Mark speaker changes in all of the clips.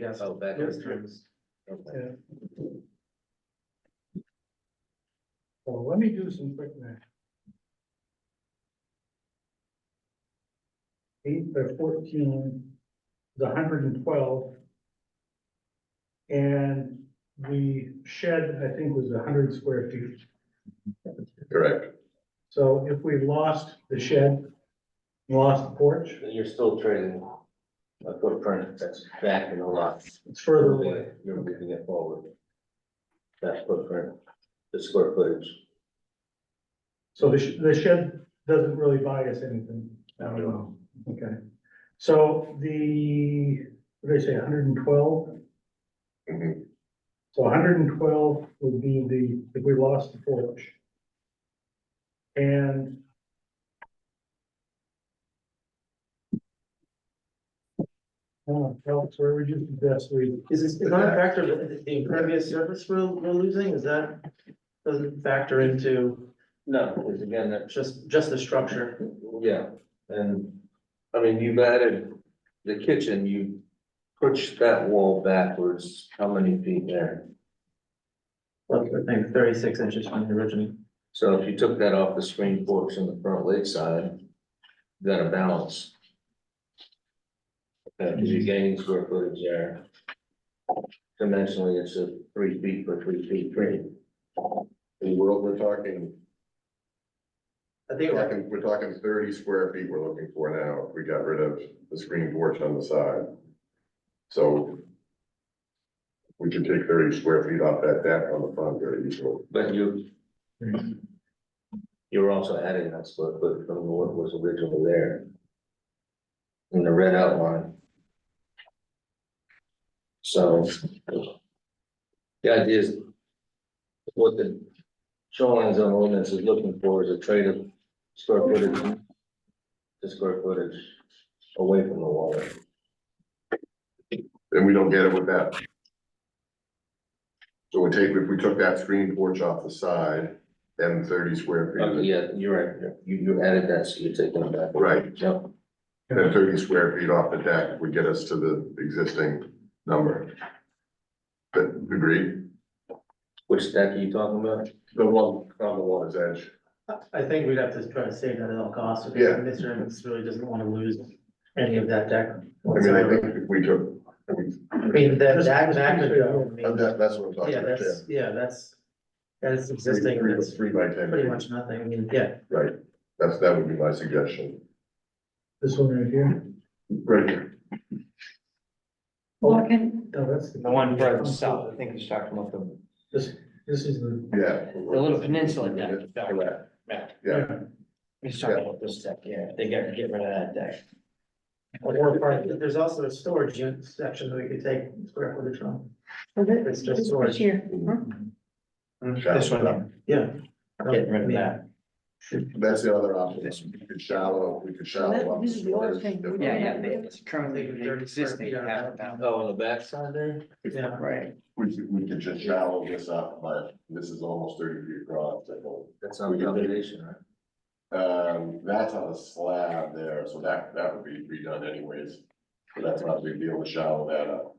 Speaker 1: Yes.
Speaker 2: Oh, back.
Speaker 1: Yes.
Speaker 2: Okay.
Speaker 1: Yeah. So let me do some quick math. Eight by fourteen is hundred and twelve. And the shed, I think, was hundred square feet.
Speaker 3: Correct.
Speaker 1: So if we lost the shed, lost the porch,
Speaker 2: You're still trading a footprint that's back in the lot.
Speaker 1: it's further
Speaker 2: You're
Speaker 1: away.
Speaker 2: moving- you're moving it forward. That footprint, the square footage.
Speaker 1: So the, sh- the shed doesn't really buy us anything. I don't know. Okay. So the, what did I say, hundred and twelve?
Speaker 4: Mm-hmm.
Speaker 3: Mhm.
Speaker 1: So hundred and twelve would be the, if we lost the porch. And Oh, Alex, where would you suggest we,
Speaker 5: Is this, is not a factor, of the the impervious surface we're, we're losing, is that, doesn't factor into
Speaker 2: No, because again, that's
Speaker 5: just, just the structure?
Speaker 3: Yeah, and, I mean, you've added the kitchen, you pushed that wall backwards, how many feet there?
Speaker 5: Look, I think thirty-six inches from the original.
Speaker 3: So if you took that off the screen porch in the front lakeside, you got a balance. Because you're gaining square footage there. Dimensionally, it's a three feet per three feet, three.
Speaker 6: And we're, we're talking,
Speaker 5: I
Speaker 6: we're
Speaker 5: think, I
Speaker 6: talking, we're talking thirty square feet we're looking for now, if we got rid of the screen porch on the side. So we can take thirty square feet off that deck on the front very easily.
Speaker 3: But you. You're Mm-hmm. also adding that square foot from what was originally there. In the red outline. So. The idea is. What the shoreline zone ordinance is looking for is a trade of square footage. To square footage away from the water.
Speaker 6: And we don't get it with that. So we take, if we took that screen porch off the side, then thirty square
Speaker 3: Okay,
Speaker 6: feet,
Speaker 3: Uh, yeah, you're right, you, you added that, so you're taking it back.
Speaker 6: right,
Speaker 3: Yep.
Speaker 6: then thirty square feet off the deck would get us to the existing number. But agreed,
Speaker 3: Which deck are you talking about?
Speaker 6: the one on the water's edge.
Speaker 5: I think we'd have to try to save that at all costs,
Speaker 6: Yeah.
Speaker 5: because Mr. Evans really doesn't wanna lose any of that deck.
Speaker 6: I mean, I
Speaker 5: whatsoever.
Speaker 6: think if we took, I mean,
Speaker 5: I mean, that,
Speaker 1: Just-
Speaker 5: that,
Speaker 1: just
Speaker 5: that could
Speaker 1: keep it
Speaker 5: go, I mean,
Speaker 6: that, that's what I'm talking
Speaker 5: yeah,
Speaker 6: about, yeah.
Speaker 5: that's, yeah, that's, that is
Speaker 6: Three-
Speaker 5: existing,
Speaker 6: three-
Speaker 5: that's
Speaker 6: Three by ten.
Speaker 5: pretty much nothing, I mean, yeah.
Speaker 6: Right, that's, that would be my suggestion.
Speaker 1: this one right here?
Speaker 6: Right here.
Speaker 7: Well, can,
Speaker 1: No, Oh, that's.
Speaker 4: The one further south, I think he's talking about the,
Speaker 1: This, this is the.
Speaker 6: Yeah.
Speaker 4: the little peninsula deck.
Speaker 6: Correct.
Speaker 4: Yeah,
Speaker 6: Yeah,
Speaker 4: He's talking about this deck, yeah, they gotta get rid of that deck.
Speaker 5: Or part, there's also a storage unit section that we could take square footage from.
Speaker 7: for thi-
Speaker 5: It's just
Speaker 7: this
Speaker 5: storage.
Speaker 7: here, huh?
Speaker 4: This one,
Speaker 5: Yeah.
Speaker 4: getting rid of that.
Speaker 6: that's the other option. We could shallow, we could shallow. up
Speaker 7: This is the other thing.
Speaker 6: storage.
Speaker 7: Yeah, yeah, they-
Speaker 4: It's currently existing half a pound.
Speaker 3: Oh, on the backside there?
Speaker 5: Yeah,
Speaker 4: Right.
Speaker 6: We could, we could just shallow this up, but this is almost thirty feet across, I think.
Speaker 3: That's on the foundation, right?
Speaker 6: Um, that's on a slab there, so that, that would be redone anyways. So that's not a big deal to shallow that up.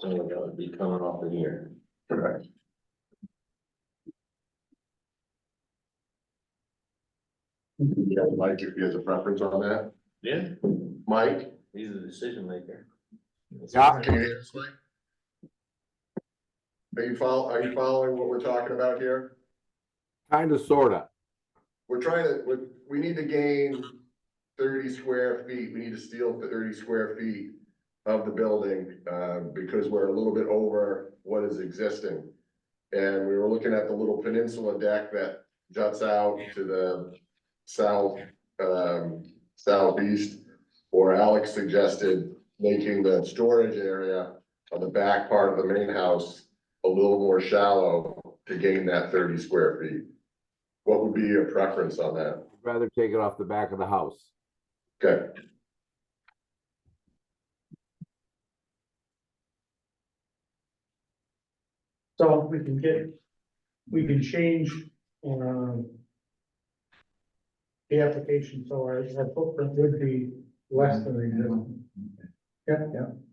Speaker 3: So that would be coming off of here.
Speaker 6: Correct. Yeah, Mike, if he has a preference on that,
Speaker 3: Yeah.
Speaker 6: Mike?
Speaker 3: He's the decision maker.
Speaker 6: Can you hear us, Mike? Are you follow, are you following what we're talking about here?
Speaker 8: Kind of, sorta.
Speaker 6: We're trying to, we, we need to gain thirty square feet, we need to steal thirty square feet of the building, uh, because we're a little bit over what is existing. And we were looking at the little peninsula deck that juts out to the south, um, southeast. Or Alex suggested making the storage area on the back part of the main house a little more shallow to gain that thirty square feet. What would be your preference on that?
Speaker 8: I'd rather take it off the back of the house.
Speaker 6: Okay,
Speaker 1: So we can get, we can change, um. The application, so our, our footprint would be less than the existing. Yeah, yeah.